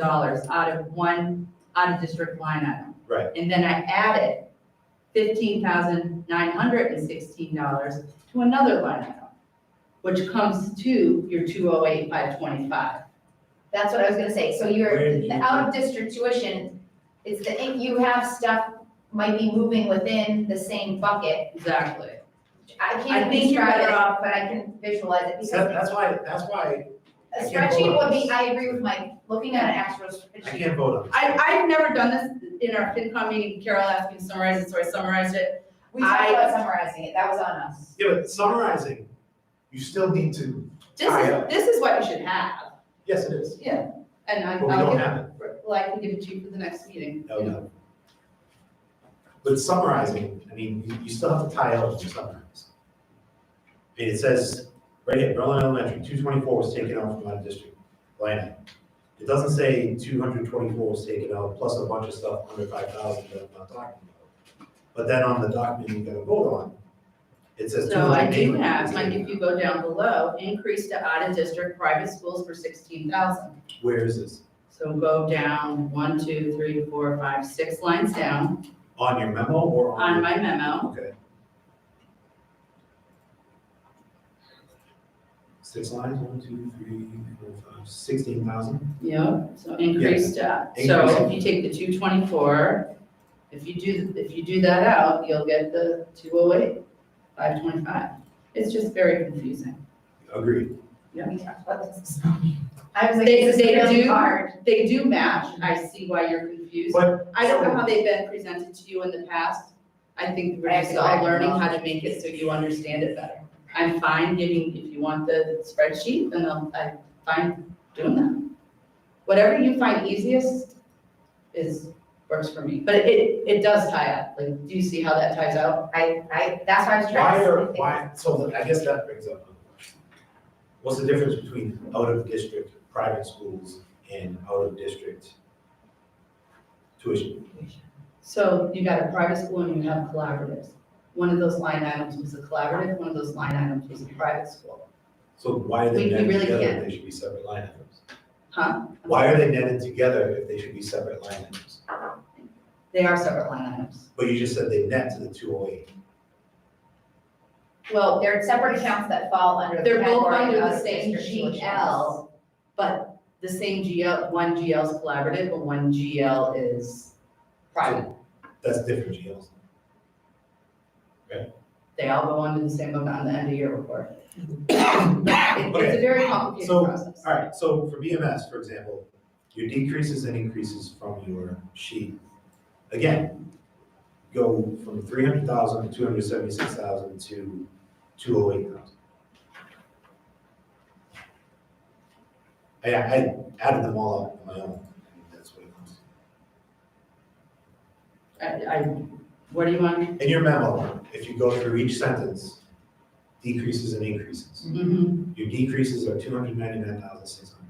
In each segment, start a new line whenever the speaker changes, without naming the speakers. dollars out of one out-of-district line item.
Right.
And then I added fifteen thousand nine hundred and sixteen dollars to another line item, which comes to your two oh eight five twenty-five.
That's what I was gonna say, so
Where
your,
do you-
the out of district tuition is the, if you have stuff might be moving within the same bucket.
Exactly.
I
I
can't
think you're
describe it
better
off, but I can visualize it
So
because
that's why, that's why
a
I can't
spreadsheet would
hold
be,
on.
I agree with Mike, looking at an actual
I
spreadsheet.
can't vote on it.
I, I've never done this in our FinCom meeting, Carol asked me to summarize it, so I summarized it.
We talked
I-
about summarizing it, that was on us.
Yeah, but summarizing, you still need to,
This
Alright.
is, this is what you should have,
yes, it is,
yeah, and I,
but we don't
I'll
have it.
give, well, I can give it to you for the next meeting.
No, no. But summarizing, I mean, you, you still have to tie out to summarize. I mean, it says, right here, Berlin Elementary, two twenty-four was taken out from out of district line item. It doesn't say two hundred twenty-four was taken out, plus a bunch of stuff under five thousand that I'm not talking about. But then on the document you're gonna vote on, it says two
So I
hundred eighty.
do have, like, if you go down below, increase to out-of-district private schools for sixteen thousand.
Where is this?
So go down one, two, three, four, five, six lines down
On your memo or on?
on
your-
my memo.
Okay. Six lines, one, two, three, four, five, sixteen thousand?
Yep, so increase to, so if you take the two twenty-four, if you do, if you do that out, you'll get the two oh eight, five twenty-five. It's just very confusing.
Agreed.
We talked about this. I was like,
They-
this is
they
really
do-
hard.
They do match, I see why you're confused.
But-
I don't know how they've been presented to you in the past. I think we're
I
just
have to
all
go back
learning
and
how to make it so you understand it better. I'm fine giving, if you want the spreadsheet, then I'll, I'm fine doing that. Whatever you find easiest is, works for me, but it, it does tie up, like, do you see how that ties out?
I, I, that's why I was trying
Why
to.
are, why, so I guess that brings up. another question. What's the difference between out of district private schools and out of district tuition?
So you got a private school and you have collaboratives. One of those line items was a collaborative, one of those line items was a private school.
So why are they
We- we
netted
really
together if
can't.
they should be separate line items?
Huh?
Why are they netted together if they should be separate line items?
They are separate line items.
But you just said they net to the two oh eight.
Well, they're separate accounts that fall under the
They're both
category
under
of
the
out of
same
district tuition.
GL, uh, but the same GL, one GL is collaborative, but one GL is private.
That's different, GLs.
They all go under the same book on the end of year report. It- It's a very complicated
So,
process.
All right, so for BMS, for example, your decreases and increases from your sheet, again, go from three hundred thousand to two hundred seventy-six thousand to two oh eight thousand. I, I added them all up on my own, and that's what it was.
I, I, what do you want?
In your memo, if you go through each sentence, decreases and increases.
Mhm.
Your decreases are two hundred ninety-nine thousand six hundred.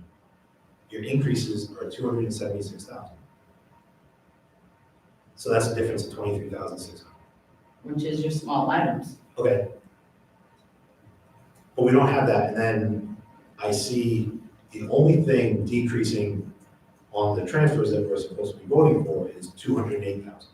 Your increases are two hundred and seventy-six thousand. So that's a difference of twenty-three thousand six hundred.
Which is your small items.
Okay. But we don't have that, and then I see the only thing decreasing on the transfers that we're supposed to be voting for is two hundred and eight thousand.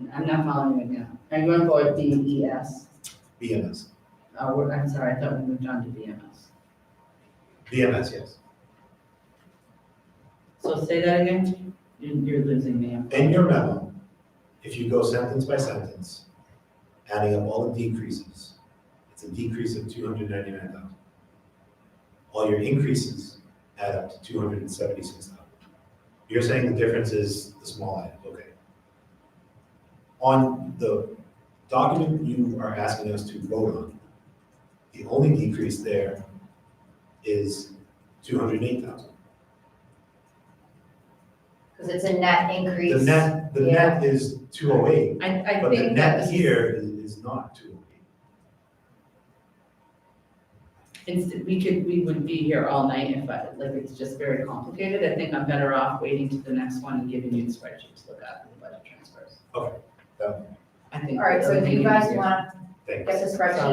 And I'm not following you now. Are you going for D E S?
BMS,
Uh, we're, I'm sorry, I thought we moved on to E BMS.
BMS, yes.
So say that again? You're, you're losing me. I'm-
In your memo, if you go sentence by sentence, adding up all the decreases, it's a decrease of two hundred ninety-nine thousand. All your increases add up to two hundred and seventy-six thousand. You're saying the difference is the small item, okay. On the document you are asking us to vote on, the only decrease there is two hundred eight thousand.
Because it's a net increase.
The net, the net is two oh eight,
I, I
But the
think that
net
this is-
here is, is not two oh
Instead, we could, we would be here all night if I, like, it's just very complicated. I think I'm better off waiting to the next one and giving you the spreadsheet to look at the budget transfers.
Okay.
I think.
All right, so if you guys want
things.
That's a spreadsheet.